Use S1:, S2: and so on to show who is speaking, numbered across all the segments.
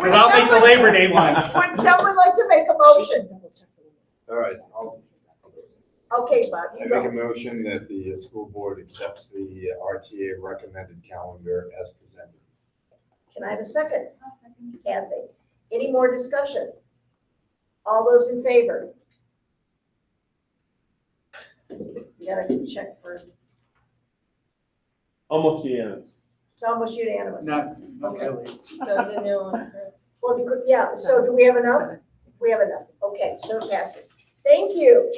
S1: Because I'll make the Labor Day one.
S2: Would someone like to make a motion?
S3: All right, I'll,
S2: Okay, Bob,
S3: I
S2: you
S3: make a
S2: go.
S3: motion that the uh, school board accepts the uh, RTA recommended calendar as presented.
S2: Can I have a second? Kathy, any more discussion? All those in favor? You gotta check for,
S4: Almost unanimous.
S2: it's almost unanimous.
S1: Not, not really.
S5: So it's a new one, Chris.
S2: Well, because, yeah, so do we have enough? We have enough. Okay, so it passes. Thank you.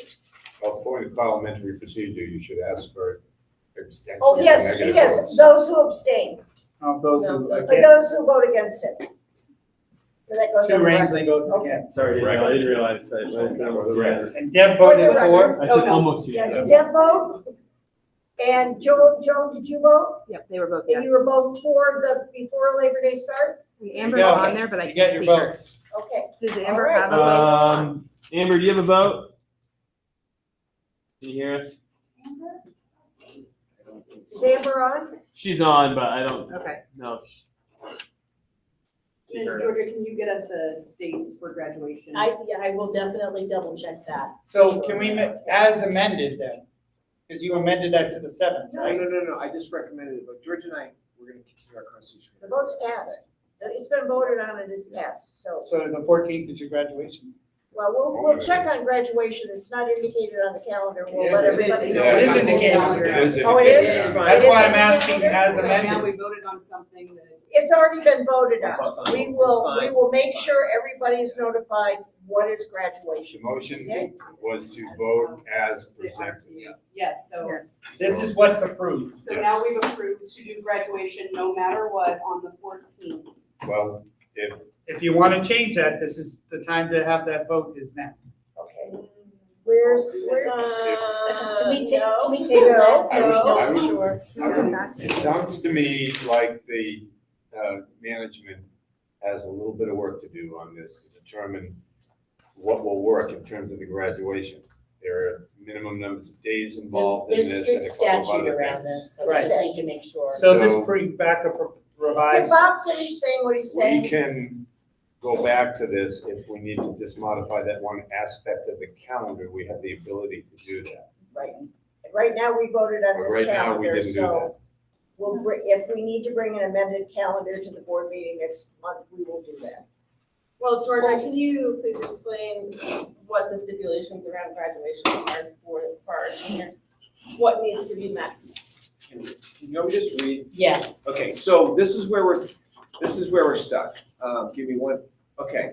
S3: Well, according to parliamentary procedure, you should ask for abstention.
S2: Oh, yes,
S3: negative
S2: yes,
S3: votes.
S2: those who abstain,
S1: Of Um, those who,
S2: for
S1: again,
S2: those who vote against it. So that goes on
S1: two
S2: the
S1: rams,
S2: record.
S1: they vote again.
S4: Sorry,
S3: Right.
S4: I didn't realize that. I said almost unanimous.
S1: And Deb voted for.
S4: I
S6: Oh,
S4: said
S6: no.
S4: almost
S2: Yeah, did
S4: unanimous.
S2: Deb vote? And Joan, Joan, did you vote?
S6: Yep, they were both
S2: And
S6: yes.
S2: you were both for the, before Labor Day start?
S6: Amber's
S1: Yeah.
S6: on there, but I
S1: You got
S6: can't
S1: your Uh,
S6: see her.
S1: votes.
S2: Okay,
S6: Does
S2: All
S6: Amber
S2: right.
S6: have a vote?
S4: Um, Amber, do you have a vote? Can you hear us?
S2: is Amber on?
S4: She's on, but I don't,
S6: Okay.
S4: no. she- she
S7: Ms.
S4: heard
S7: Georgia,
S4: us.
S7: can you get us the dates for graduation?
S5: I, yeah, I will definitely double check that.
S1: So can we, ma- as amended then? Because you amended that to the seventh,
S8: No,
S1: right?
S8: no, no, no, I just recommended it, but George and I, we're gonna continue our conversation.
S2: The vote's passed. It's been voted on and it's passed, so,
S1: So the fourteenth is your graduation.
S2: well, we'll, we'll check on graduation. It's not indicated on the calendar. We'll let
S1: Yeah, it is.
S2: everybody know.
S3: Yeah,
S1: It is
S2: in
S1: indicated.
S3: It is
S2: Oh, it is?
S3: indicated.
S1: That's why I'm asking as
S7: So now
S1: amended.
S7: we voted on something that.
S2: It's already been voted on. We will, we will make sure everybody is notified what is graduation.
S3: The motion
S2: Okay?
S3: was to vote as presented.
S7: Yes, so,
S6: Yes.
S1: This is what's approved.
S7: so now we've approved to do graduation no matter what on the fourteenth.
S3: Well, if
S1: If you want to change that, this is the time to have that vote is now.
S2: Okay. Where's, where?
S5: Can we take, can we take
S2: No.
S5: that?
S3: I would-
S5: No, sure.
S3: I would- It sounds to me like the uh, management has a little bit of work to do on this to determine what will work in terms of the graduation. There are minimum numbers of days involved in
S5: There's,
S3: this and
S5: there's
S3: a
S5: strict
S3: couple of
S5: statute
S3: other
S5: around
S3: things.
S5: this, so we
S1: Right.
S5: just need to make sure.
S1: So this
S3: So-
S1: brings back a pro-
S2: Did
S1: revised,
S2: Bob finish saying what he's saying?
S3: We can go back to this if we need to just modify that one aspect of the calendar. We have the ability to do that.
S2: Right, And right now, we voted on
S3: But
S2: this
S3: right now, we
S2: calendar,
S3: didn't do
S2: so
S3: that.
S2: we'll, br- if we need to bring an amended calendar to the board meeting next month, we will do that.
S5: Well, Georgia, can you please explain what the stipulations around graduation are for, for our seniors? What needs to be met?
S8: Can you just read
S5: Yes.
S8: Okay, so this is where we're, this is where we're stuck. Um, give me one, okay.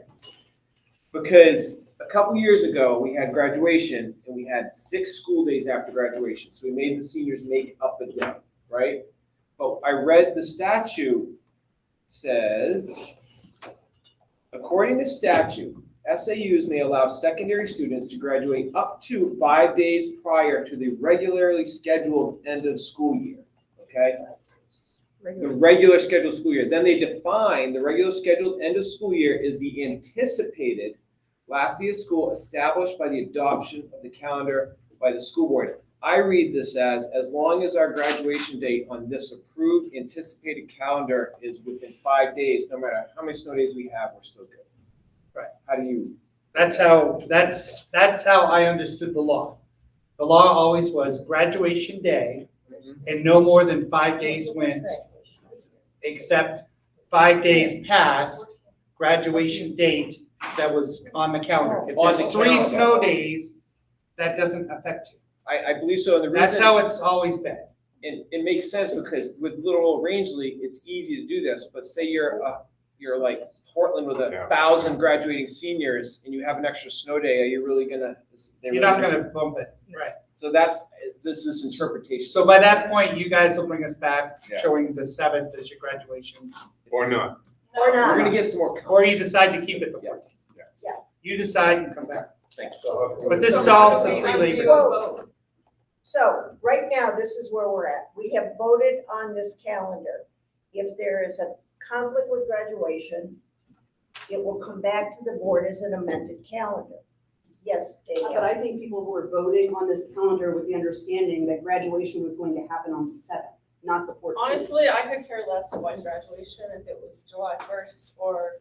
S8: Because a couple years ago, we had graduation and we had six school days after graduation, so we made the seniors make up a day, right? But I read the statute says, according to statute, SAUs may allow secondary students to graduate up to five days prior to the regularly scheduled end of school year, okay? the regular scheduled school year. Then they define the regular scheduled end of school year is the anticipated last day of school established by the adoption of the calendar by the school board. I read this as, as long as our graduation date on this approved anticipated calendar is within five days, no matter how many snow days we have, we're still good. Right, how do you?
S1: that's how, that's, that's how I understood the law. The law always was graduation day and no more than five days went, except five days past graduation date that was on the calendar. If
S8: On the
S1: there's three
S8: calendar.
S1: snow days, that doesn't affect you.
S8: I, I believe so, and the reason.
S1: That's how it's always been.
S8: And it makes sense because with little old Rangeley, it's easy to do this, but say you're, uh, you're like Portland with a
S3: Yeah.
S8: thousand graduating seniors and you have an extra snow day, are you really gonna? they're
S1: You're not
S8: really-
S1: gonna bump it. Right.
S8: So that's, this is interpretation.
S1: So by that point, you guys will bring us back
S3: Yeah.
S1: showing the seventh as your graduation,
S3: Or not.
S2: Or
S8: We're
S2: not,
S8: gonna get some more.
S1: or you decide to keep it the fourteenth.
S3: Yeah.
S2: Yeah.
S1: You decide and come back.
S3: But
S1: this solves the free labor.
S2: so, right now, this is where we're at, we have voted on this calendar. If there is a conflict with graduation, it will come back to the board as an amended calendar. Yes,
S7: But
S2: Danielle,
S7: I think people who are voting on this calendar with the understanding that graduation was going to happen on the seventh, not the fourteenth.
S5: Honestly, I could care less about graduation if it was July first or